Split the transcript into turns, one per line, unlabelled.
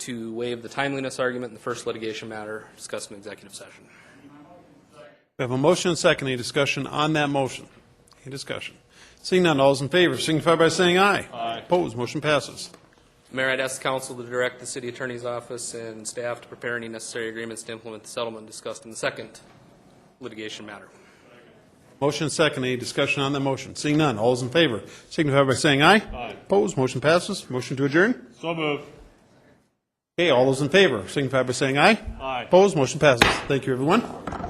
to waive the timeliness argument in the first litigation matter discussed in executive session.
We have a motion and a second. Any discussion on that motion? Any discussion? Seeing none, all those in favor signify by saying aye. Aye. Opposed, motion passes.
Mayor, I'd ask council to direct the city attorney's office and staff to prepare any necessary agreements to implement the settlement discussed in the second litigation matter.
Motion and second. Any discussion on that motion? Seeing none, all those in favor signify by saying aye. Aye. Opposed, motion passes. Motion to adjourn?
So moved.
Okay, all those in favor signify by saying aye.
Aye.
Opposed, motion passes. Thank you, everyone.